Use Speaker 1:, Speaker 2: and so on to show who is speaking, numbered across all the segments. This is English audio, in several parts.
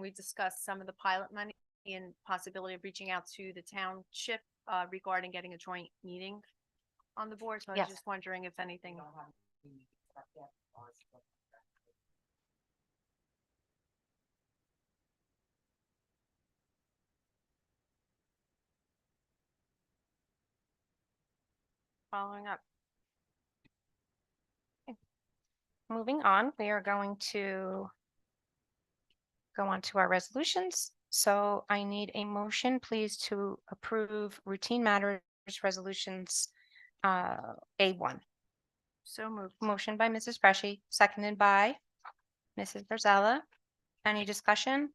Speaker 1: we discussed some of the pilot money and possibility of reaching out to the township uh, regarding getting a joint meeting on the board. So I was
Speaker 2: Yes.
Speaker 1: just wondering if anything, following up.
Speaker 2: Moving on, we are going to go on to our resolutions. So I need a motion, please, to approve routine matters resolutions uh, A one.
Speaker 1: So moved.
Speaker 3: Mm.
Speaker 2: Motion by Mrs. Freshy, seconded by Mrs. Virzella. Any discussion?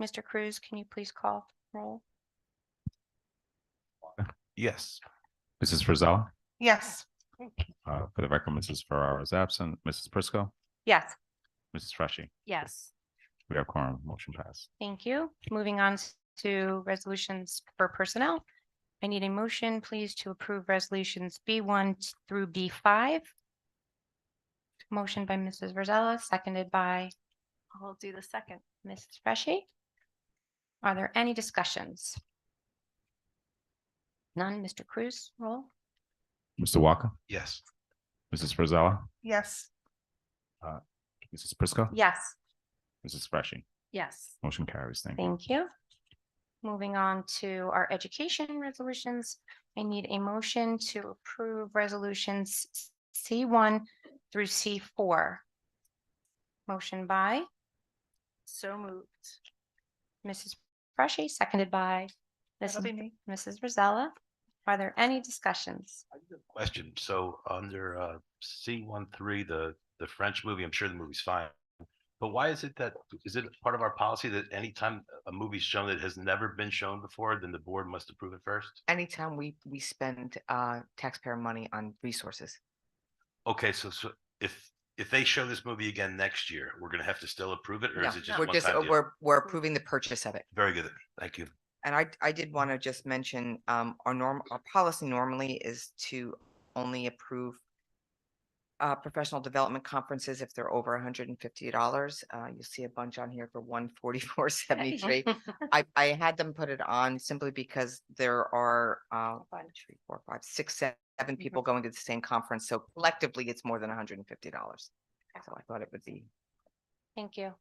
Speaker 2: Mr. Cruz, can you please call roll?
Speaker 4: Yes. Mrs. Frizella,
Speaker 5: Yes.
Speaker 4: uh, for the record, Mrs. Ferraro is absent. Mrs. Prisco,
Speaker 2: Yes.
Speaker 4: Mrs. Freshy,
Speaker 1: Yes.
Speaker 4: we have quorum, motion passed.
Speaker 2: Thank you. Moving on s- to resolutions for personnel. I need a motion, please, to approve resolutions B one through B five. Motion by Mrs. Virzella, seconded by
Speaker 1: I'll do the second.
Speaker 2: Mrs. Freshy. Are there any discussions? None. Mr. Cruz, roll.
Speaker 4: Mr. Walker,
Speaker 6: Yes.
Speaker 4: Mrs. Frizella,
Speaker 5: Yes.
Speaker 4: Mrs. Prisco,
Speaker 2: Yes.
Speaker 4: Mrs. Freshy,
Speaker 1: Yes.
Speaker 4: motion carries. Thank you.
Speaker 2: Thank you. Moving on to our education resolutions, I need a motion to approve resolutions C one through C four. Motion by
Speaker 1: So moved.
Speaker 2: Mrs. Freshy, seconded by
Speaker 5: That'll be
Speaker 2: Mrs.
Speaker 5: me.
Speaker 2: Mrs. Rosella. Are there any discussions?
Speaker 6: Question, so under uh C one three, the the French movie, I'm sure the movie's fine. But why is it that, is it part of our policy that anytime a movie's shown that has never been shown before, then the board must approve it first?
Speaker 5: Anytime we, we spend, uh, taxpayer money on resources.
Speaker 6: Okay, so so if if they show this movie again next year, we're gonna have to still approve it, or
Speaker 5: No,
Speaker 6: is it just
Speaker 5: We're
Speaker 6: one
Speaker 5: just,
Speaker 6: time? deal?
Speaker 5: we're, we're approving the purchase of it.
Speaker 6: Very good, thank you.
Speaker 5: And I, I did want to just mention, um, our norm, our policy normally is to only approve uh, professional development conferences if they're over hundred and fifty dollars. Uh, you'll see a bunch on here for one forty-four seventy-three. I, I had them put it on simply because there are, uh, one, two, three, four, five, six, se-
Speaker 1: Mm-hmm.
Speaker 5: seven people going to the same conference. So collectively, it's more than hundred and fifty dollars. So I thought it would be,
Speaker 2: Thank you.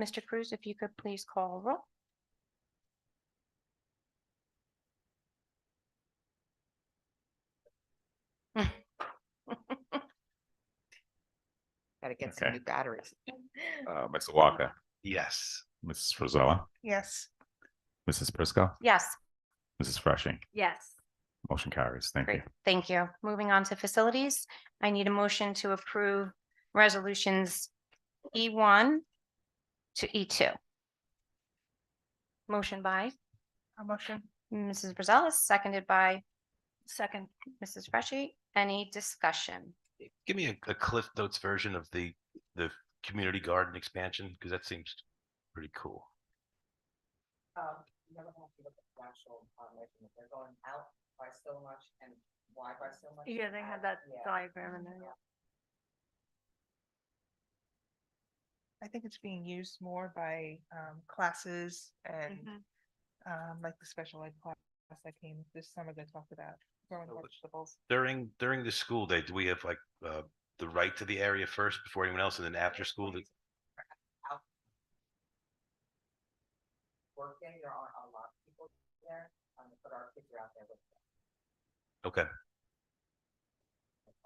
Speaker 2: Mr. Cruz, if you could please call roll.
Speaker 5: gotta get some
Speaker 4: Okay.
Speaker 5: new batteries.
Speaker 4: Uh, Mr. Walker,
Speaker 6: Yes,
Speaker 4: Mrs. Frizella,
Speaker 5: Yes.
Speaker 4: Mrs. Prisco,
Speaker 2: Yes.
Speaker 4: Mrs. Freshy,
Speaker 1: Yes.
Speaker 4: motion carries. Thank you.
Speaker 2: Great, thank you. Moving on to facilities, I need a motion to approve resolutions E one to E two. Motion by
Speaker 5: A motion?
Speaker 2: Mrs. Brazales, seconded by
Speaker 1: Second.
Speaker 2: Mrs. Freshy. Any discussion?
Speaker 6: give me a a Cliff Notes version of the the community garden expansion, because that seems pretty cool.
Speaker 5: Um, you never have to look at the actual, um, measurement. they're going out by so much and wide by so much. Mm-hmm.
Speaker 1: Yeah, they had that diagram in there. yeah.
Speaker 7: I think it's being used more by um classes and
Speaker 1: Mhm.
Speaker 7: um like the special ed class that came this summer that talked about growing
Speaker 6: Oh, which-
Speaker 7: vegetables.
Speaker 6: During, during the school day, do we have like, uh, the right to the area first before anyone else and then after school? do-
Speaker 5: Working, there aren't a lot of people there, um, but our kids are out there with them.
Speaker 6: Okay.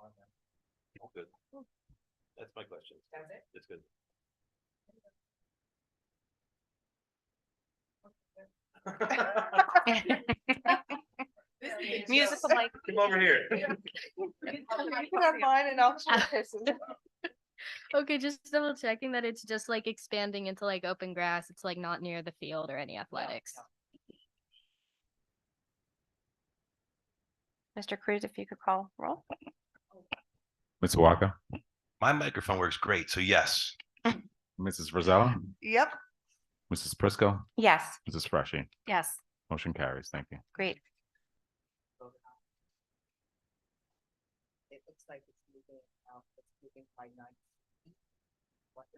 Speaker 5: On them.
Speaker 6: Good. That's my question.
Speaker 5: That's it?
Speaker 6: That's good.
Speaker 2: Musical like,
Speaker 6: Come over here.
Speaker 7: and I'll this.
Speaker 3: Okay, just double checking that it's just like expanding into like open grass. It's like not near the field or any athletics.
Speaker 2: Mr. Cruz, if you could call roll.
Speaker 4: Mr. Walker,
Speaker 6: My microphone works great, so yes.
Speaker 4: Mrs. Frizella,
Speaker 7: Yep,
Speaker 4: Mrs. Prisco,
Speaker 2: Yes,
Speaker 4: Mrs. Freshy,
Speaker 1: Yes.
Speaker 4: motion carries. Thank you.
Speaker 2: great.
Speaker 5: It looks like it's moving out, it's moving by nine